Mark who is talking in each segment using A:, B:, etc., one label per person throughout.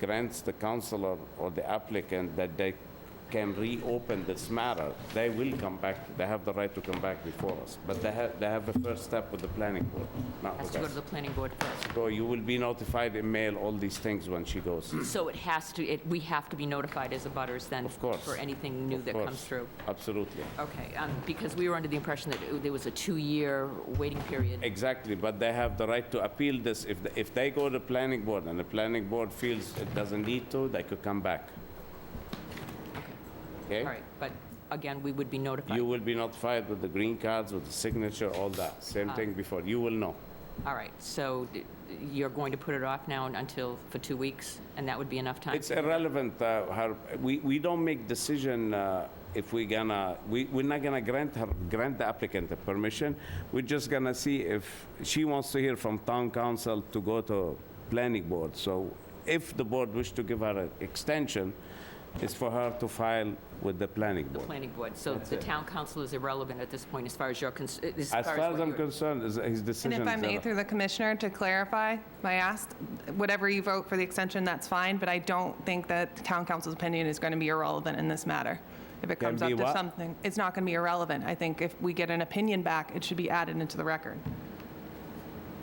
A: grants the counselor or the applicant that they can reopen this matter, they will come back, they have the right to come back before us. But they have, they have a first step with the planning board, not
B: Has
A: with
B: to go to
A: us.
B: the planning board first.
A: So you will be notified in mail all these things when she goes.
B: So it has to, it, we have to be notified as a butters then?
A: Of course.
B: For anything new
A: Of
B: that
A: course.
B: comes through?
A: Absolutely.
B: Okay, um, because we were under the impression that it- there was a two-year waiting period.
A: Exactly, but they have the right to appeal this. If, the- if they go to planning board and the planning board feels it doesn't need to, they could come back. Okay?
B: All right, but again, we would be
A: You
B: notified.
A: will be notified with the green cards, with the signature, all that. Same
C: Ah.
A: thing before, you will know.
B: All right, so d- you're going to put it off now until, for two weeks? And that would be enough time?
A: It's irrelevant, uh, her, we, we don't make decision uh, if we gonna, we, we're not gonna grant her, grant the applicant the permission. We're just gonna see if she wants to hear from town council to go to planning board. So if the board wish to give her an extension, it's for her to file with the planning
B: The
A: board.
B: planning board, so the town council is irrelevant at this point as far as you're, cons- as far
A: As
B: as
A: far as
B: what
A: I'm
B: you're-
A: concerned, is- his
C: And
A: decision
C: if
A: is...
C: I may,
A: irre-
C: through the commissioner, to clarify, I asked, whatever you vote for the extension, that's fine, but I don't think that the town council's opinion is going to be irrelevant in this matter. If it
A: Can
C: comes
A: be
C: up to
A: what?
C: something, it's not going to be irrelevant. I think if we get an opinion back, it should be added into the record.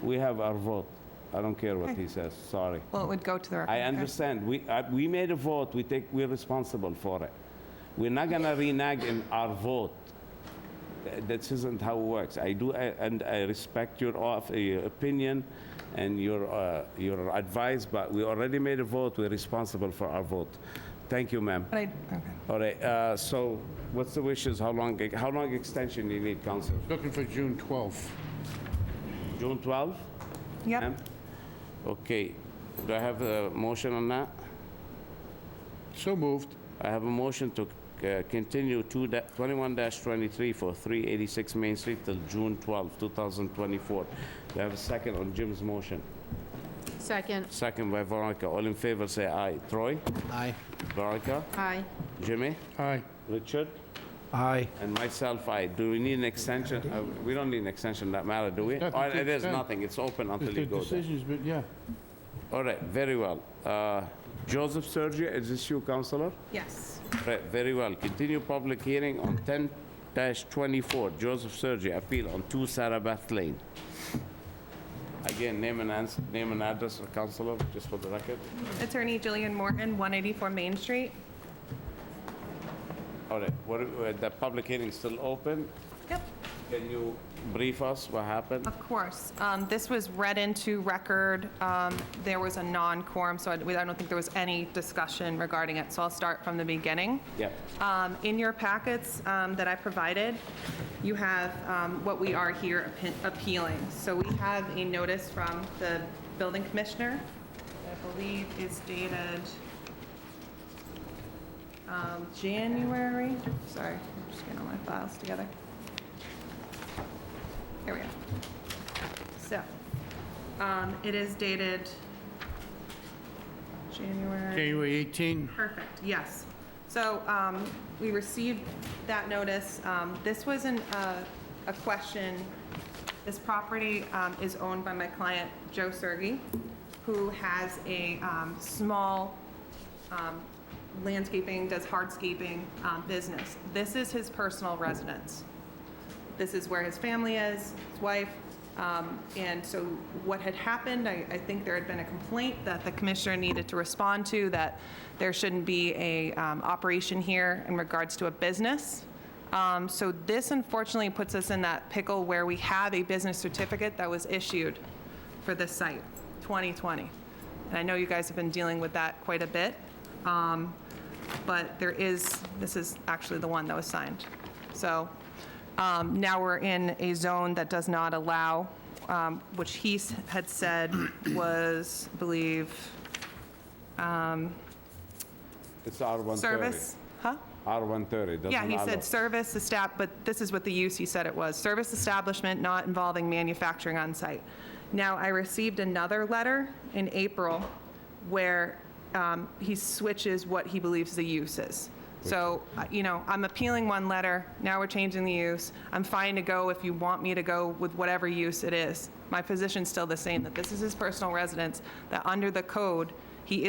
A: We have our vote. I don't care what he says, sorry.
C: Well, it would go to the record.
A: I
C: okay.
A: understand. We, uh, we made a vote, we take, we're responsible for it. We're not gonna renege in our vote. Th- That isn't how it works. I do, I- and I respect your of, your opinion and your, uh, your advice, but we already made a vote, we're responsible for our vote. Thank you, ma'am.
C: But I- okay.
A: All right, uh, so what's the wishes, how long, how long extension you need, council?
D: Looking for June 12th.
A: June 12?
C: Yep,
A: ma'am? Okay, do I have a motion on that?
D: So moved.
A: I have a motion to uh, continue two da- 21-23 for 386 Main Street till June 12, 2024. Do I have a second on Jim's motion?
E: Second.
A: Second by Veronica. All in favor, say aye. Troy?
F: Aye.
A: Veronica?
E: Aye.
A: Jimmy?
D: Aye.
A: Richard?
F: Aye.
A: And myself, aye. Do we need an extension? Uh, We don't need an extension, that matter, do we?
D: There's
A: Or
D: nothing to
A: it is
D: extend.
A: nothing, it's open until
D: The
A: you go there.
D: decision's been, yeah.
A: All right, very well. Uh, Joseph Sergio, is this you, Counselor?
C: yes.
A: Right, very well. Continue public hearing on ten twenty-four, Joseph Sergi, appeal on two Sarabath Lane. Again, name and ans, name and address, Counselor, just for the record.
C: Attorney Jillian Morton, 184 Main Street.
A: All right, what, uh, the public hearing is still open.
C: Yep.
A: Can you brief us what happened?
C: Of course. Um, This was read into record. Um, There was a non-quorum, so I we- I don't think there was any discussion regarding it, so I'll start from the beginning.
A: Yeah.
C: Um, In your packets um, that I provided, you have um, what we are here appe- appealing. So we have a notice from the building commissioner, that I believe is dated um, January, sorry, I'm just getting all my files together. Here we go. So, um, it is dated January.
D: January 18.
C: Perfect, yes. So um, we received that notice. Um, This wasn't a, a question. This property um, is owned by my client, Joe Sergi, who has a um, small um, landscaping, does hardscaping um, business. This is his personal residence. This is where his family is, his wife. Um, And so what had happened, I, I think there had been a complaint that the commissioner needed to respond to, that there shouldn't be a um, operation here in regards to a business. Um, So this unfortunately puts us in that pickle where we have a business certificate that was issued for this site, 2020. And I know you guys have been dealing with that quite a bit. Um, but there is, this is actually the one that was signed. So um, now we're in a zone that does not allow, um, which he s- had said was, I believe,
A: It's R130.
C: service, huh?
A: R130, doesn't
C: Yeah, he
A: allow-
C: said service estab, but this is what the use he said it was, service establishment not involving manufacturing on site. Now, I received another letter in April where um, he switches what he believes the use is. So, uh, you know, I'm appealing one letter, now we're changing the use. I'm fine to go if you want me to go with whatever use it is. My position's still the same, that this is his personal residence, that under the code,